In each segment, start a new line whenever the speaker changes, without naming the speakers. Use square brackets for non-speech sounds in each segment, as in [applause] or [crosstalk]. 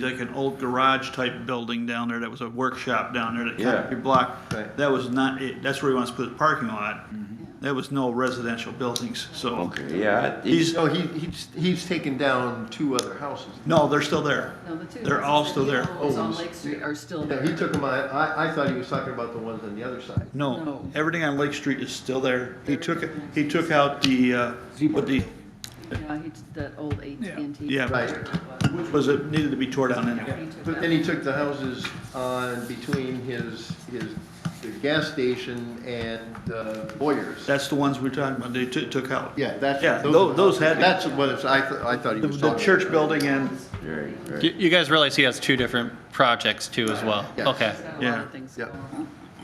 like an old garage type building down there that was a workshop down there that
Yeah.
concrete block.
Right. Mm-hmm.
That was not it, that's where he wants to put the parking lot. There was no residential buildings, so.
Okay, yeah. it-
He's,
No, he, he's, he's taken down two other houses.
no, they're still there.
No, the two
They're
houses
all still
that he
there. Oh,
owns on
Owns.
Lake Street are still
Yeah,
there.
he took them, I, I, I thought he was talking about the ones on the other side.
No,
No.
everything on Lake Street is still there. He
There
took,
it is.
he took out the, uh, what the,
Yeah, he, that old AT&T.
yeah,
Right,
was it needed to be tore down anyway.
He took
but
that.
then he took the houses on between his, his, the gas station and uh, Boyers.
That's the ones we're talking about, they took, took out.
Yeah, that's.
Yeah,
are
tho-
the
those
houses.
had-
That's what it's, I, th- I thought he
The,
was
the
talking about.
church building and,
Right, right.
You, you guys realize he has two different projects too as well?
Yes.
Okay.
He's got a lot
Yeah.
of things
Yeah.
going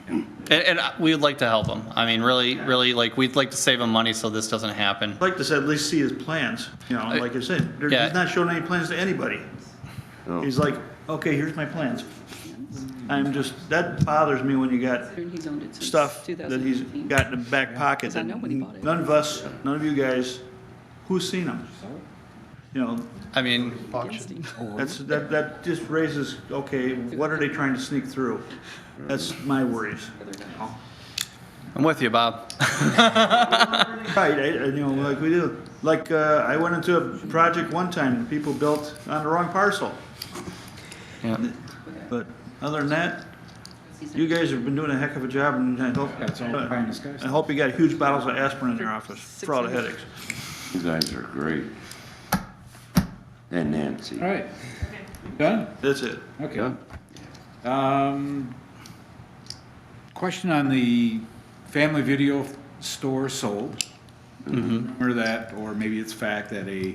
on.
And, and we'd like to help him. I mean, really, really, like, we'd like to save him money so this doesn't happen.
I'd like to say, at least see his plans, you know, like I said, there-
Yeah.
he's not showing any plans to anybody.
No.
He's like, okay, here's my plans. I'm just, that bothers me when you got
And He's owned it since
stuff that he's
2018.
got in the back pocket
Because I
that
know when he bought it.
none of us, none of you guys, who's seen them? You know,
I mean,
Auction.
that's, that, that just raises, okay, what are they trying to sneak through? That's my worries.
I'm with you, Bob.
Right, I, I, you know, like we do, like, uh, I went into a project one time, people built on the wrong parcel.
Yeah.
But other than that,
He's-
you guys have been doing a heck of a job and I hope, I hope you got huge bottles of aspirin in your office for all the headaches.
You guys are great. And Nancy.
All right. Done?
That's it.
Okay.
Yeah.
Um, Question on the family video store sold. Or that, or maybe it's fact that a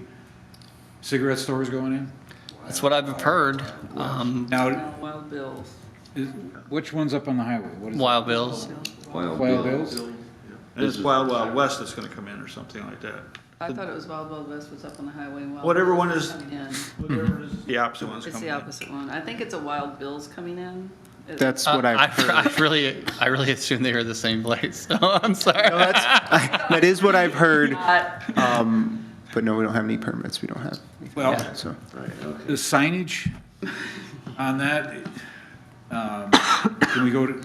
cigarette store is going in?
That's what I've heard. Um,
Now,
Wild Bill.
is- which one's up on the highway? What is it?
Wild Bills.
Wild
Wild
Bill.
Bill's?
And it's Wild Wild West that's gonna come in or something like that.
I thought it was Wild Bill West was up on the highway. and Wild
Whatever
Bill's
one
was
is-
coming in.
The opposite one's
It's
coming
the
in.
opposite one. I think it's a Wild Bill's coming in. It-
That's
Uh,
what I've heard.
I really, I really assume they were the same place. [laughs] So I'm sorry.
No, that's, that is what I've heard,
Not-
um, but no, we don't have any permits, we don't have,
Well,
so.
Right, okay.
the signage on that, um, can we go to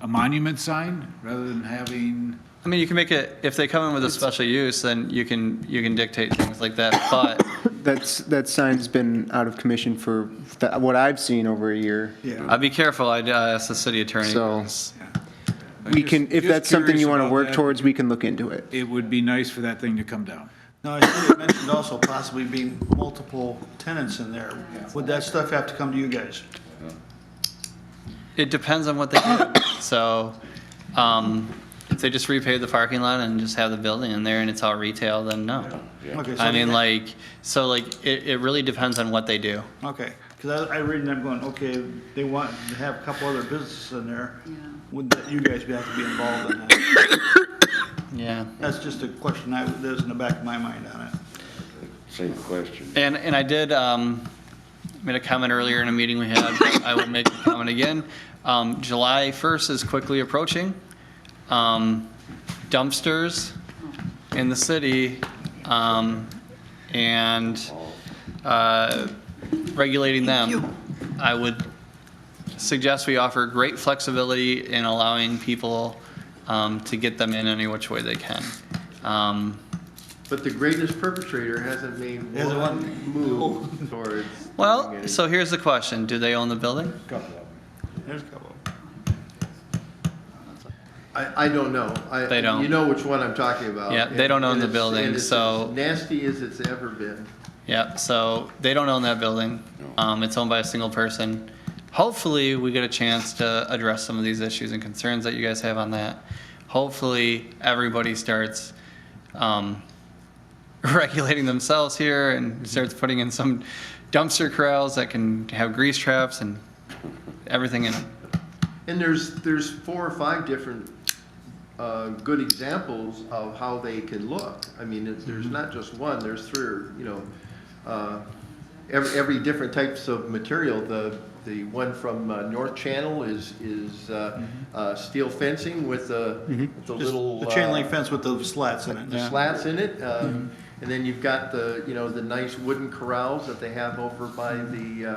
a monument sign rather than having?
I mean, you can make it, if they come in with a special use, then you can, you can dictate things like that. But
That's, that sign's been out of commission for, that- what I've seen over a year.
I'd be careful. I'd uh, ask the city attorney.
So-
I'm
We
just-
can, if
just
that's something
curious
you want to
about
work
that.
towards, we can look into it.
It would be nice for that thing to come down.
Now, I think you mentioned also possibly being multiple tenants in there. Would that stuff have to come to you guys?
It depends on what they do. [coughs] So, um, if they just repave the parking lot and just have the building in there and it's all retail, then no.
Okay, so-
I mean, like, so like, it, it really depends on what they do.
Okay, because I, I read and I'm going, okay, they want to have a couple other businesses in there.
Yeah.
Would that- you guys have to be involved in that?
Yeah.
That's just a question I, that was in the back of my mind on it.
Same question.
And, and I did, um, made a comment earlier in a meeting we had, but I will make a comment again. Um, July first is quickly approaching. Um, dumpsters in the city, um, and, uh, regulating them. I would suggest we offer great flexibility in allowing people, um, to get them in any which way they can. Um,
But the greatest perpetrator hasn't made
Hasn't
one move towards. doing
Well,
any-
so here's the question. Do they own the building?
There's a couple.
I, I don't know. I-
They don't.
You know which one I'm talking about.
Yeah, they
and-
don't own
and
the
it's-
building,
and it's
so-
as Nasty as it's ever been.
Yeah, so they don't own that building. Um, it's owned by a single person. Hopefully, we get a chance to address some of these issues and concerns that you guys have on that. Hopefully, everybody starts, um, [laughs] regulating themselves here and starts putting in some dumpster corrals that can have grease traps and everything in them.
And there's, there's four or five different uh, good examples of how they can look. I mean, it's- there's
Mm-hmm.
not just one, there's three, or, you know, uh, every, every different types of material. The, the one from uh, North Channel is, is uh, uh, steel fencing with the, with the
Mm-hmm. Just
little.
the chain
uh,
link fence with the slats in it.
the slats in it. uh,
Mm-hmm. Mm-hmm.
And then you've got the, you know, the nice wooden corrals that they have over by the, uh,